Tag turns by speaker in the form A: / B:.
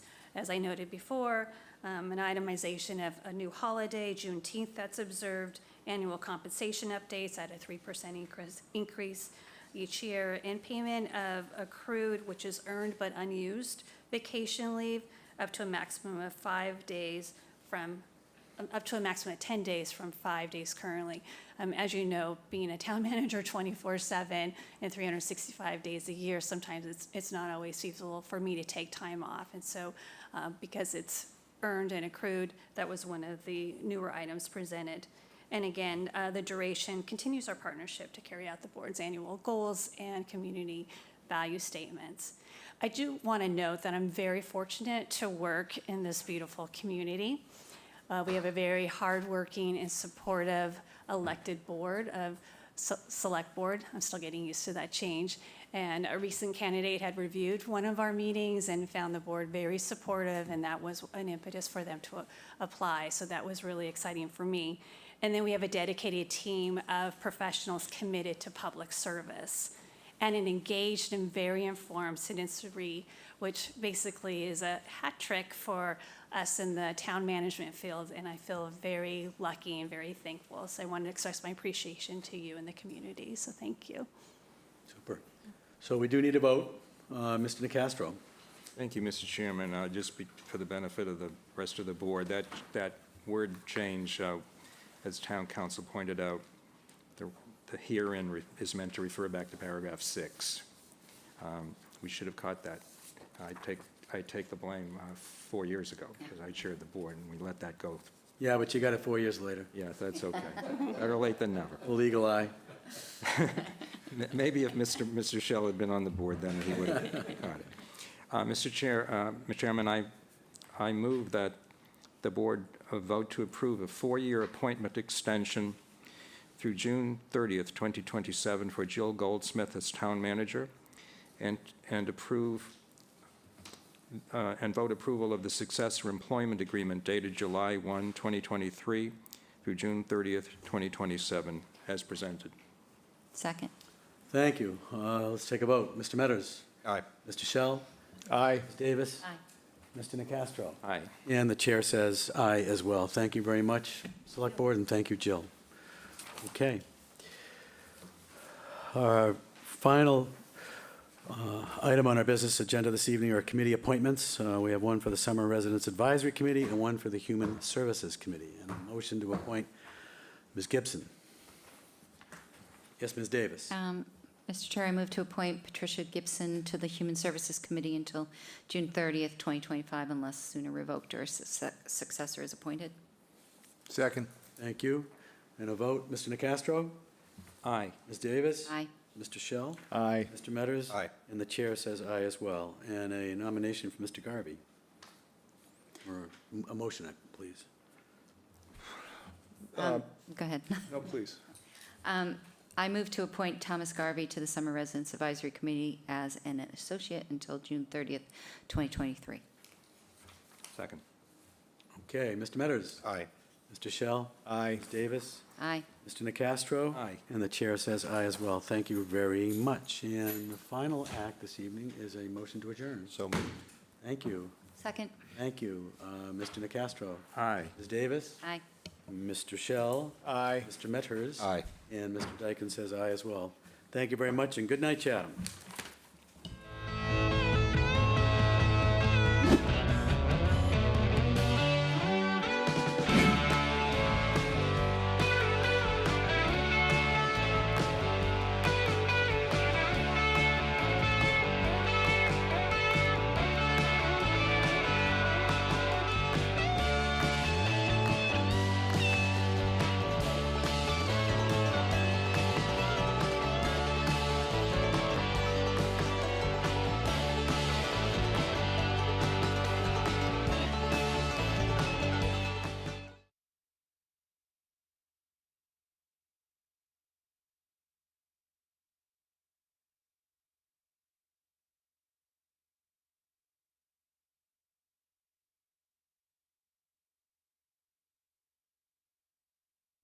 A: as I noted before, um, an itemization of a new holiday, Juneteenth that's observed, annual compensation updates at a three percent increase, increase each year, and payment of accrued, which is earned but unused, vacation leave up to a maximum of five days from um, up to a maximum of 10 days from five days currently. Um, As you know, being a town manager 24/7 and 365 days a year, sometimes it's, it's not always feasible for me to take time off. And so uh, because it's earned and accrued, that was one of the newer items presented. And again, uh, the duration continues our partnership to carry out the board's annual goals and community value statements. I do want to note that I'm very fortunate to work in this beautiful community. Uh, We have a very hardworking and supportive elected board of, se- select board, I'm still getting used to that change. And a recent candidate had reviewed one of our meetings and found the board very supportive, and that was an impetus for them to a- apply. So that was really exciting for me. And then we have a dedicated team of professionals committed to public service and an engaged and very informed citizenry, which basically is a hat trick for us in the town management field. And I feel very lucky and very thankful. So I wanted to express my appreciation to you and the community. So thank you.
B: Super. So we do need a vote. Uh, Mr. Nacastro?
C: Thank you, Mr. Chairman. Uh, Just be- for the benefit of the rest of the board, that, that word change, uh, as town council pointed out, the the herein re- is meant to refer back to paragraph six. Um, We should have caught that. I take, I take the blame uh, four years ago, because I chaired the board, and we let that go.
B: Yeah, but you got it four years later.
C: Yeah, that's okay. Better late than never.
B: Legal eye.
C: M- Maybe if Mr. Mr. Shell had been on the board, then he would have got it. Uh, Mr. Chair, uh, Mr. Chairman, I, I move that the board uh, vote to approve a four-year appointment extension through June 30th, 2027 for Jill Goldsmith as town manager, and, and approve, uh, and vote approval of the successor employment agreement dated July 1, 2023 through June 30th, 2027, as presented.
D: Second.
B: Thank you. Uh, Let's take a vote. Mr. Metters?
C: Aye.
B: Mr. Shell?
C: Aye.
B: Ms. Davis?
D: Aye.
B: Mr. Nacastro?
C: Aye.
B: And the chair says aye as well. Thank you very much, Select Board, and thank you, Jill. Okay. Our final uh, item on our business agenda this evening are committee appointments. Uh, We have one for the Summer Residents Advisory Committee and one for the Human Services Committee. And a motion to appoint Ms. Gibson. Yes, Ms.
D: Uh,
B: Davis.
D: Mr. Um, Chair, I move to appoint Patricia Gibson to the Human Services Committee until June 30th, 2025, unless sooner revoked or succe- successor is appointed.
E: Second.
B: Thank you. And a vote, Mr. Nacastro?
C: Aye.
B: Ms. Davis?
D: Aye.
B: Mr. Shell?
E: Aye.
B: Mr. Metters?
E: Aye.
B: And the chair says aye as well. And a nomination for Mr. Garvey. Or a motion, please.
D: Um, Go ahead.
E: Uh, No, please.
D: Um, I move to appoint Thomas Garvey to the Summer Residence Advisory Committee as an associate until June 30th, 2023.
C: Second.
B: Okay, Mr. Metters?
E: Aye.
B: Mr. Shell?
E: Aye.
B: Ms. Davis?
D: Aye.
B: Mr. Nacastro?
C: Aye.
B: And the chair says aye as well. Thank you very much. And the final act this evening is a motion to adjourn.
E: So moved.
B: Thank you.
D: Second.
B: Thank you, uh, Mr. Nacastro.
C: Aye.
B: Ms. Davis?
D: Aye.
B: Mr. Shell?
E: Aye.
B: Mr. Metters?
E: Aye.
B: And Mr. Dyken says aye as well. Thank you very much, and good night, Chatham.